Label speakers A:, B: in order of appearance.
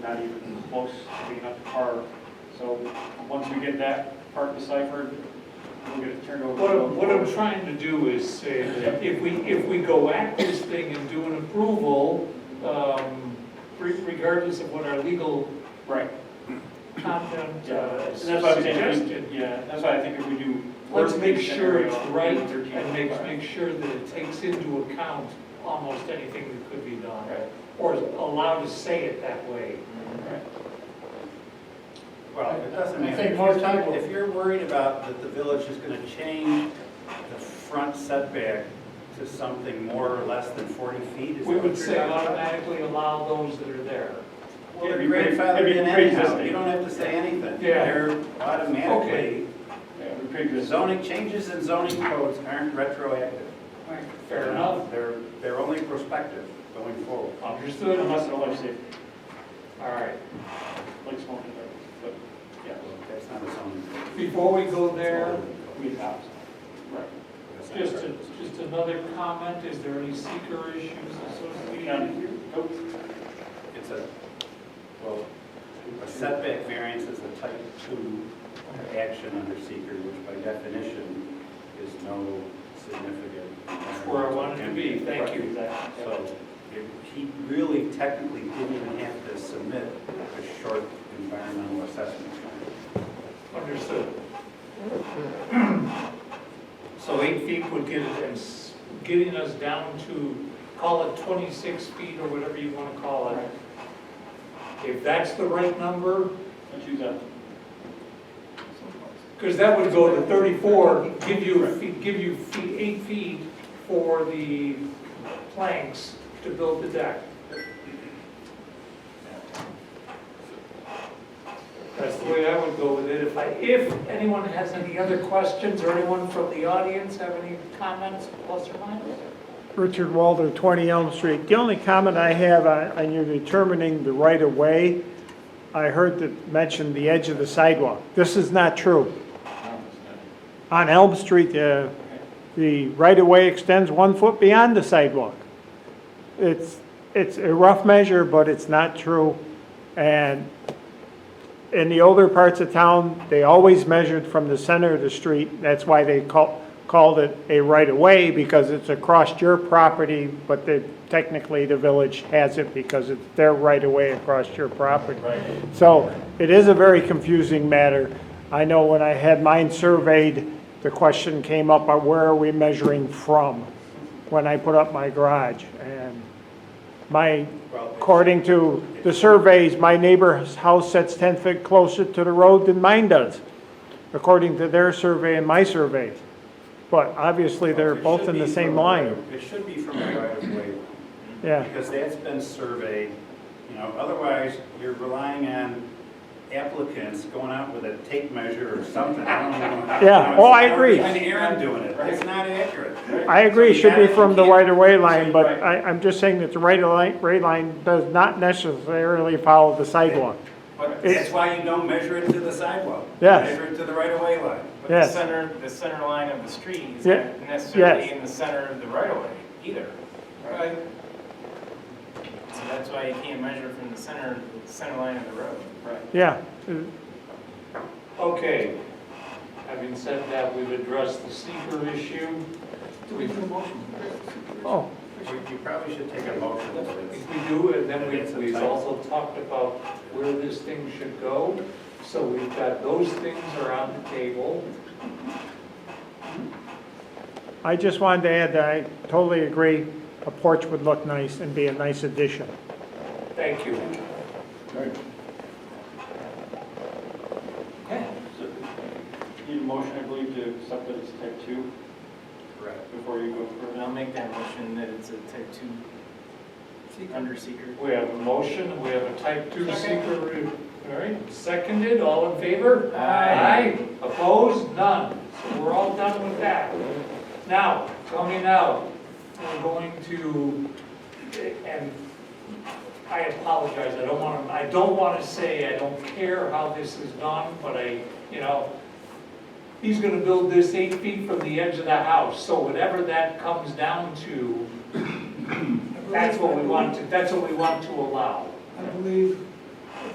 A: not even close to being up to par. So once we get that part deciphered, we'll get it turned over.
B: What I'm, what I'm trying to do is say that if we, if we go at this thing and do an approval, um, re- regardless of what our legal
A: Right,
B: content
A: yeah,
B: uh,
A: and that's why I'm saying,
B: suggested,
A: we- yeah, that's why I think if we do.
B: let's
A: worst
B: make
A: case
B: sure it's
A: scenario,
B: right
A: 13,
B: and make,
A: right.
B: make sure that it takes into account almost anything that could be done.
A: Right.
B: Or is allowed to say it that way.
A: Right.
C: Well, it doesn't
D: I
C: matter.
D: think
C: If
D: most
C: you're-
D: people-
C: If you're worried about that the village is going to change the front setback to something more or less than 40 feet, is that
B: We
C: what
B: would
C: you're
B: say
C: talking about?
B: automatically allow those that are there.
C: Well, they're
A: It'd be pre-
C: grandfathered
A: it'd be
C: in anyhow,
A: pre-existing.
C: you don't have to say anything.
B: Yeah.
C: They're
B: Okay.
C: automatically,
A: Yeah, we
C: the
A: pre-exist.
C: zoning, changes in zoning codes aren't retroactive.
B: Fair enough,
C: They're, they're only prospective going forward.
B: understood, all
A: Unless it's legislative,
B: right.
A: like smoking, but, yeah,
C: That's not a zoning. code.
B: Before we go there,
A: we adopt. Right.
C: That's not
B: just,
C: right.
B: a- just another comment, is there any seeker issues
A: We
B: associated?
A: can, nope,
C: It's a, well, a setback variance is a type two action under seeker, which by definition is no significant.
B: That's where I wanted to be, thank you.
A: exactly.
C: So it- he really technically didn't even have to submit a short environmental assessment.
B: Understood. So eight feet would get it as, getting us down to, call it 26 feet or whatever you want to call it. If that's the right number,
A: Let's use that.
B: Because that would go to 34, give you, give you feet, eight feet for the planks to build the deck. That's the way I would go with it. If I, if anyone has any other questions, or anyone from the audience have any comments, plus or minus?
E: Richard Walter, 20 Elm Street. The only comment I have on on your determining the right-of-way, I heard that mentioned the edge of the sidewalk. This is not true. On Elm Street, uh, the right-of-way extends one foot beyond the sidewalk. It's, it's a rough measure, but it's not true. And in the older parts of town, they always measured from the center of the street. That's why they call, called it a right-of-way, because it's across your property, but they, technically, the village has it because it's their right-of-way across your property. So it is a very confusing matter. I know when I had mine surveyed, the question came up, uh, where are we measuring from? When I put up my garage, and my According to the surveys, my neighbor's house sits 10 feet closer to the road than mine does, according to their survey and my survey. But obviously, they're
C: Well, it
E: both
C: should
E: in the
C: be
E: same
C: from a right-
E: line.
C: It should be from the right of way line.
E: Yeah,
C: Because that's been surveyed, you know, otherwise you're relying on applicants going out with a tape measure or something. I don't even know how-
E: Yeah.
C: you know,
E: Oh,
C: it's
E: I
C: not
E: agree.
C: really Aaron doing it, it's not accurate.
E: I agree, it should be from the right-of-way line, but
C: Right.
E: I, I'm just saying that the right-of-way line does not necessarily follow the sidewalk.
C: But that's why you don't measure it to the sidewalk. You
E: Yes.
C: Measure it to the right of way line.
F: But the
E: Yes.
F: center, the center line of the street is
E: Yeah,
F: not necessarily
E: yes.
F: in the center of the right of way either.
B: Right.
F: So that's why you can't measure from the center, center line of the road.
A: Right.
E: Yeah, uh,
B: Okay. Having said that, we've addressed the seeker issue. Do we do a motion?
E: oh,
C: You- You probably should take a motion for this.
B: If we do, and then
C: It's
B: we-
C: a
B: we've
C: tight-
B: also talked about where this thing should go, so we've got those things are on the table.
E: I just wanted to add that I totally agree, a porch would look nice and be a nice addition.
B: Thank you. Okay.
A: So, Need a motion, I believe, to accept that it's type two
C: Correct.
A: before you go
F: And
A: further.
F: I'll make that motion that it's a type two under seeker.
B: We have a motion, we have a type two secret review. All right, seconded, all in favor?
F: Aye.
B: Aye. Opposed? None. So we're all done with that. Now, coming out, we're going to, and I apologize, I don't want to, I don't want to say I don't care how this is done, but I, you know, he's going to build this eight feet from the edge of the house, so whatever that comes down to, that's what we want to, that's what we want to allow.
G: I believe